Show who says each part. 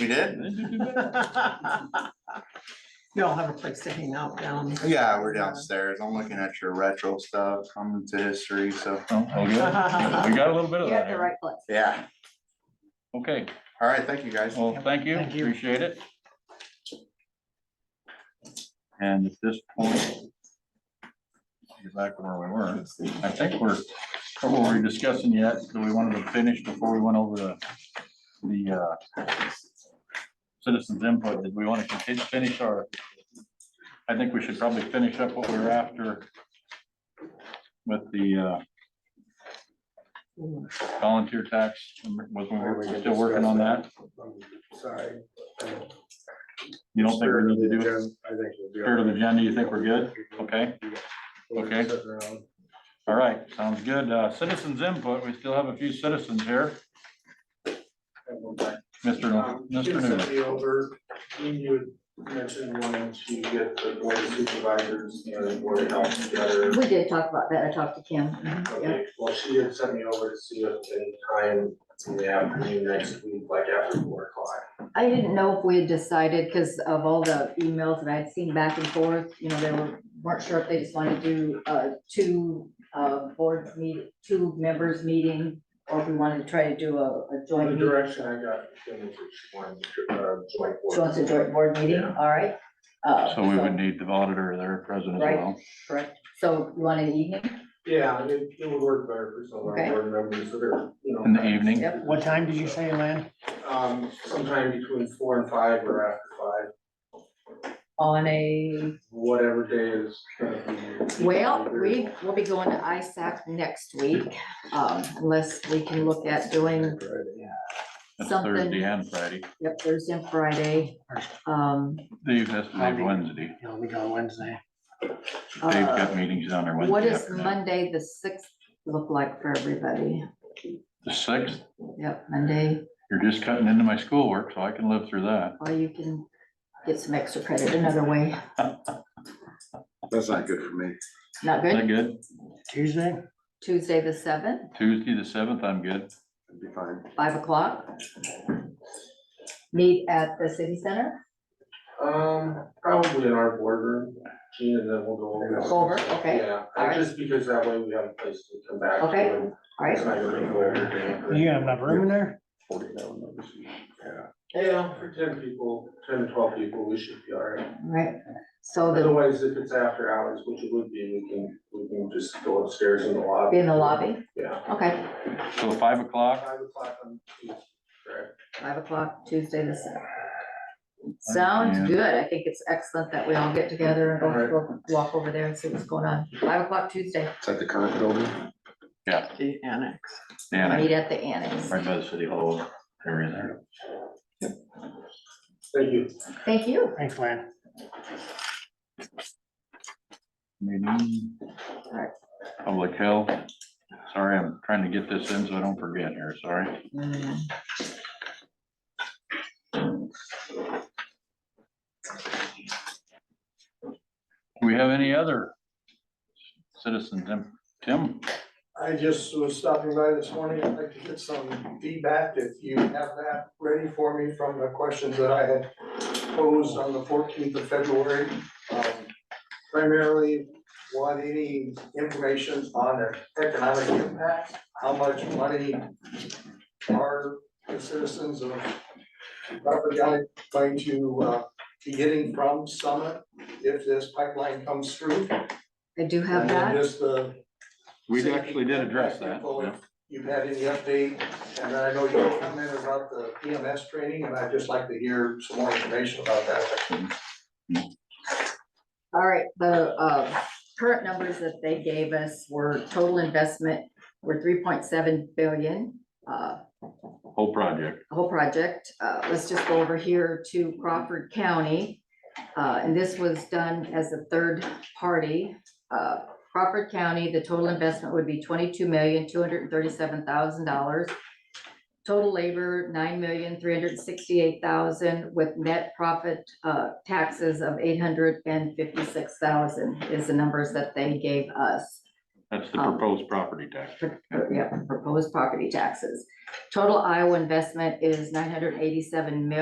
Speaker 1: We did?
Speaker 2: You all have a place to hang out down.
Speaker 1: Yeah, we're downstairs. I'm looking at your retro stuff, I'm into history, so,
Speaker 3: Oh, all good. We got a little bit of
Speaker 4: You
Speaker 3: that
Speaker 4: have the
Speaker 3: here.
Speaker 4: right place.
Speaker 1: yeah.
Speaker 3: Okay,
Speaker 1: All right, thank you, guys.
Speaker 3: well, thank you,
Speaker 2: Thank you.
Speaker 3: appreciate it. And at this point. Get back to where we were. I think we're, what were we discussing yet? Do we wanted to finish before we went over the, the, uh, citizens input? Did we want to continue, finish our? I think we should probably finish up what we were after with the, uh, volunteer tax, was, we were still working on that?
Speaker 5: Sorry.
Speaker 3: You don't think we're going to do it?
Speaker 5: I think we'll do it.
Speaker 3: Spirit of the agenda, you think we're good? Okay, Okay.
Speaker 5: Sitting around.
Speaker 3: all right, sounds good. Uh, citizens input, we still have a few citizens here. Mr.
Speaker 5: Um,
Speaker 3: Nor-
Speaker 5: you
Speaker 3: Mr.
Speaker 5: sent
Speaker 3: Newman,
Speaker 5: me over, you had mentioned wanting to get the board of supervisors and the board of health together.
Speaker 4: We did talk about that. I talked to Kim.
Speaker 5: Okay, well, she had sent me over to see if any time in the afternoon next week, like after four o'clock.
Speaker 4: I didn't know if we had decided because of all the emails that I'd seen back and forth, you know, they were, weren't sure if they just wanted to do, uh, two, uh, board meet, two members meeting or if we wanted to try to do a, a
Speaker 5: The
Speaker 4: joint meeting.
Speaker 5: direction I got, Kim, was that she wanted to, uh, joint. board.
Speaker 4: She wants a joint board meeting,
Speaker 5: Yeah.
Speaker 4: all right? Uh,
Speaker 3: so we would need the auditor there present as well.
Speaker 4: Correct. So you want in the evening?
Speaker 5: Yeah, it, it would work better for some of
Speaker 4: Okay.
Speaker 5: our board members that are, you know.
Speaker 3: In the evening?
Speaker 4: Yep.
Speaker 2: What time did you say, Lynn?
Speaker 5: Um, sometime between four and five or after five,
Speaker 4: On a,
Speaker 5: whatever day is. gonna be-
Speaker 4: well, we, we'll be going to ISAC next week, um, unless we can look at doing
Speaker 3: That's
Speaker 4: Something.
Speaker 3: Thursday and Friday.
Speaker 4: Yep, Thursday and Friday. Um,
Speaker 3: Dave has to leave
Speaker 2: Monday.
Speaker 3: Wednesday.
Speaker 2: Yeah, we go Wednesday.
Speaker 3: Dave's got
Speaker 4: uh,
Speaker 3: meetings on there Wednesday.
Speaker 4: what does
Speaker 3: afternoon.
Speaker 4: Monday, the sixth, look like for everybody?
Speaker 3: The sixth,
Speaker 4: Yep, Monday,
Speaker 3: you're just cutting into my schoolwork, so I can live through that.
Speaker 4: or you can get some extra credit another way.
Speaker 6: That's not good for me.
Speaker 4: Not
Speaker 3: Is that
Speaker 4: good?
Speaker 3: good?
Speaker 2: Tuesday?
Speaker 4: Tuesday, the seventh,
Speaker 3: Tuesday, the seventh, I'm good.
Speaker 6: It'd be fine.
Speaker 4: five o'clock. Meet at the city center,
Speaker 5: Um, probably in our boardroom, Gene, and then we'll go over.
Speaker 4: Go over, okay.
Speaker 5: Yeah,
Speaker 4: All right.
Speaker 5: just because that way we have a place to come back to.
Speaker 4: Okay,
Speaker 5: and
Speaker 4: all
Speaker 5: It's
Speaker 4: right?
Speaker 5: not gonna be over.
Speaker 2: You gonna have room in there?
Speaker 6: Forty thousand, obviously.
Speaker 5: Yeah, for ten people, ten to twelve people, we should be all right.
Speaker 4: Right, so the,
Speaker 5: Otherwise, if it's after hours, which it would be, we can, we can just go upstairs in the lobby.
Speaker 4: be in the lobby,
Speaker 5: Yeah.
Speaker 4: okay,
Speaker 3: So five o'clock,
Speaker 5: Five o'clock on Tuesday, correct?
Speaker 4: five o'clock, Tuesday, the seventh. Sounds
Speaker 3: Yeah.
Speaker 4: good, I think it's excellent that we all get together and go go walk over there and see what's going on, five o'clock Tuesday,
Speaker 6: It's at the Conant Building.
Speaker 2: The annex.
Speaker 3: Dan,
Speaker 4: meet at the annex.
Speaker 3: right by the city hall area there.
Speaker 5: Thank you.
Speaker 4: Thank you.
Speaker 2: Thanks, Lynn.
Speaker 3: meeting.
Speaker 4: Right.
Speaker 3: Public health. Sorry, I'm trying to get this in so I don't forget here, sorry.
Speaker 4: Mm.
Speaker 3: Do we have any other citizens? Tim- Tim,
Speaker 7: I just was stopping by this morning, I'd like to get some feedback, if you have that ready for me from the questions that I had posed on the fourteenth of February. Um, Primarily, want any information on the economic impact, how much money are the citizens of Crawford County going to, uh, be getting from Summit if this pipeline comes through?
Speaker 4: I do have
Speaker 7: And then
Speaker 4: that.
Speaker 7: just the
Speaker 3: we actually did address that.
Speaker 7: People,
Speaker 3: yeah.
Speaker 7: if You've had any update, and then I know you commented about the EMS training, and I'd just like to hear some more information about that.
Speaker 4: All right, the uh, current numbers that they gave us were total investment were three point seven billion. uh,
Speaker 3: Whole project.
Speaker 4: the Whole project, Uh, let's just go over here to Crawford County. Uh, And this was done as a third party. Uh, Crawford County, the total investment would be twenty-two million, two hundred and thirty-seven thousand dollars. Total labor, nine million, three hundred and sixty-eight thousand, with net profit uh, taxes of eight hundred and fifty-six thousand is the numbers that they gave us. Uh,
Speaker 3: That's the
Speaker 4: Um,
Speaker 3: proposed property tax.
Speaker 4: Pro- pro- Yeah, proposed property taxes. Total Iowa investment is nine hundred and eighty-seven million.